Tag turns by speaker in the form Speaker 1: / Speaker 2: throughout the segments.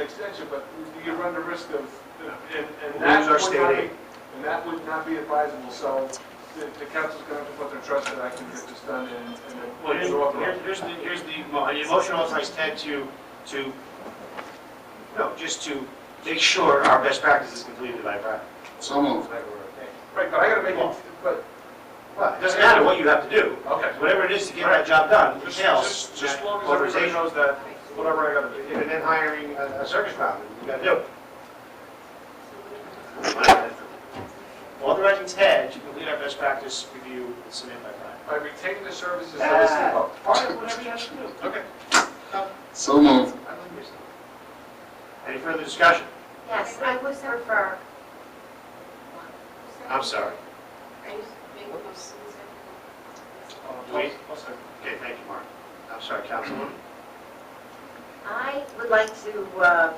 Speaker 1: extension, but you run the risk of, and, and
Speaker 2: We'll
Speaker 1: that
Speaker 2: lose our
Speaker 1: would not
Speaker 2: state
Speaker 1: be,
Speaker 2: aid.
Speaker 1: and that would not be advisable, so the, the council's gonna have to put their trust that I can get this done and,
Speaker 3: Well,
Speaker 1: and
Speaker 3: here's,
Speaker 1: it's authorized.
Speaker 3: here- here's the, here's the, mo- the motion authorizes Ted to, to, no, just to make sure our best practice is completed by Friday.
Speaker 4: So moved.
Speaker 1: Right, but I gotta make it, but,
Speaker 3: Well, it doesn't matter what you have to do,
Speaker 1: okay.
Speaker 3: whatever it is to get that job done, it
Speaker 1: Just,
Speaker 3: entails
Speaker 1: just, just
Speaker 3: that
Speaker 1: as long as everybody
Speaker 3: authorization.
Speaker 1: knows that, whatever I gotta do.
Speaker 2: And then hiring a a circus clown, you gotta do.
Speaker 3: Yep. Authorizing Ted to complete our best practice review and submit by
Speaker 1: I
Speaker 3: Friday.
Speaker 1: retain the services that I still owe.
Speaker 3: All right, whatever you have to do. Okay.
Speaker 4: So moved.
Speaker 3: I believe yourself. Any further discussion?
Speaker 5: Yes, I would prefer.
Speaker 3: I'm sorry.
Speaker 5: Are you making a motion?
Speaker 3: Do we- Okay, thank you, Mark. I'm sorry, Councilwoman.
Speaker 5: I would like to uh,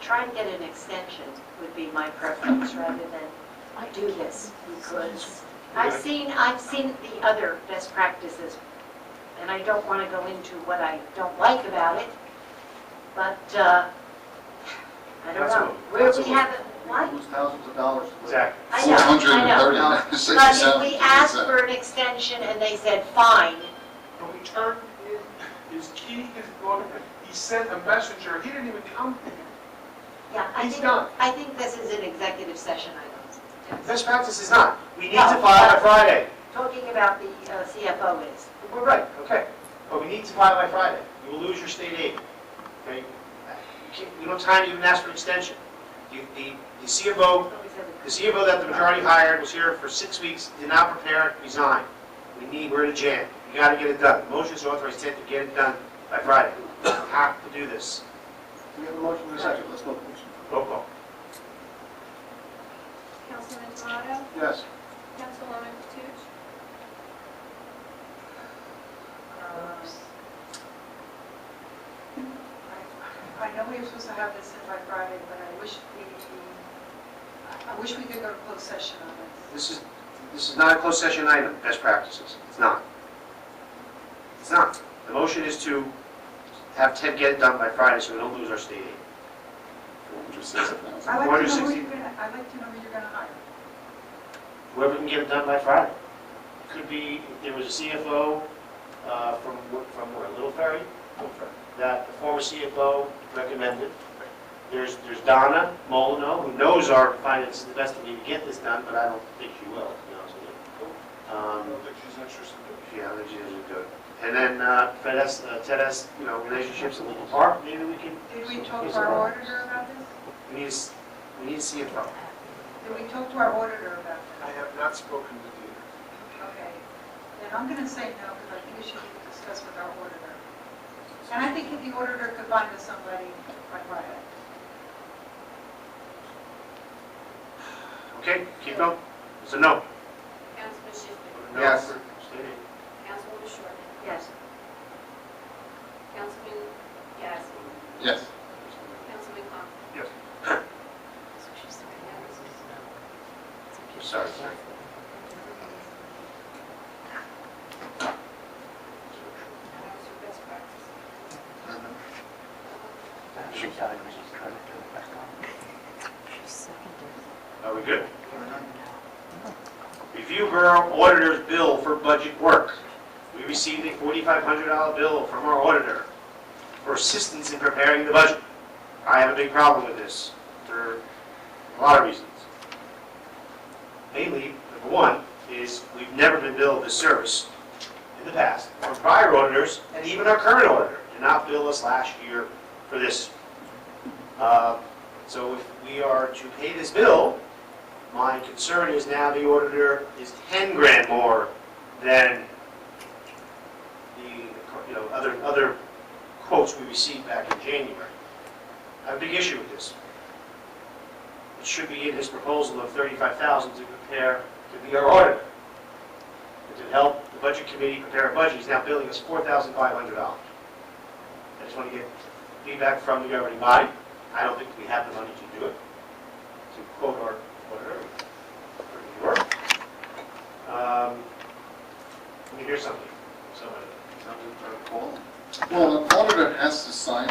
Speaker 5: try and get an extension would be my preference rather than do this because I've seen, I've seen the other best practices and I don't want to go into what I don't like about it, but uh, I don't
Speaker 3: That's
Speaker 5: know.
Speaker 3: what-
Speaker 5: Where
Speaker 3: that's
Speaker 5: we
Speaker 3: what-
Speaker 5: haven't, why?
Speaker 4: Lose thousands of dollars.
Speaker 3: Exactly.
Speaker 5: I know, I know. But if we asked for
Speaker 4: 467.
Speaker 5: an extension and they said, fine,
Speaker 1: When we turned in his key, his lawyer, he sent a messenger, he didn't even come.
Speaker 5: yeah, I
Speaker 1: He's
Speaker 5: think,
Speaker 1: done.
Speaker 5: I think this is an executive session item.
Speaker 3: Best practice is not, we need to file by Friday.
Speaker 5: Talking about the uh, CFO is,
Speaker 3: We're right, okay, but we need to file by Friday. You will lose your state aid, okay? You can't- You don't have time to even ask for an extension. You- The the CFO, the CFO that the majority hired was here for six weeks, did not prepare, resigned. We need, we're in a jam, you gotta get it done. Motion is authorized Ted to get it done by Friday. We Have to do this.
Speaker 4: We have a motion in a second, let's vote.
Speaker 3: Roll call.
Speaker 6: Councilman Tomato,
Speaker 4: Yes.
Speaker 6: Councilwoman Toots,
Speaker 7: I know we were supposed to have this in by Friday, but I wish we, I wish we could go to closed session on this.
Speaker 3: This is, this is not a closed session item, best practices. It's not. It's not. The motion is to have Ted get it done by Friday so we don't lose our state aid.
Speaker 7: I'd like to know who
Speaker 3: 460.
Speaker 7: you're gonna, I'd like to know who you're gonna hire.
Speaker 3: Whoever can get it done by Friday. Could be, there was a CFO uh, from, wh- from where, Little Ferry? That the former CFO recommended. There's, there's Donna Molino, who knows our finances the best of me to get this done, but I don't think she will, to be honest with you.
Speaker 1: I
Speaker 3: Um,
Speaker 1: don't think she's interested in it.
Speaker 3: Yeah, they usually do it. And then uh, Fed has, uh, Ted has, you know, relationships in Lincoln Park, maybe we can,
Speaker 7: Did we talk to our auditor about this?
Speaker 3: we need, a s- we need a CFO.
Speaker 7: Did we talk to our auditor about
Speaker 1: I
Speaker 7: this?
Speaker 1: have not spoken to
Speaker 7: Okay. Then I'm gonna say no, because I think it should be discussed with our auditor. And I think if the auditor could find us somebody by Friday.
Speaker 3: Okay, keep going. So no.
Speaker 6: Councilman Schiffman,
Speaker 3: No
Speaker 2: Yes.
Speaker 3: for state aid.
Speaker 6: Councilwoman Shortman,
Speaker 5: yes,
Speaker 6: Councilman Yasi,
Speaker 4: Yes.
Speaker 6: Councilman Conklin.
Speaker 3: Yes.
Speaker 6: uh,
Speaker 3: I'm Sorry. sorry. Are we good? Review Borough Auditor's Bill for Budget Work. We received a $4,500 bill from our auditor for assistance in preparing the budget. I have a big problem with this for a lot of reasons. Mainly, number one, is we've never been billed this service in the past. Our prior auditors, and even our current auditor, did not bill us last year for this. Uh, So if we are to pay this bill, my concern is now the auditor is 10 grand more than the, you know, other, other quotes we received back in January. I have a big issue with this. It should be in his proposal of 35,000 to prepare to be our auditor. And to help the budget committee prepare a budget, he's now billing us $4,500. I just want to get feedback from the governing body. I don't think we have the money to do it, to quote our auditor. for New York. Um, Let me hear something, somebody.
Speaker 4: Well, an auditor has to sign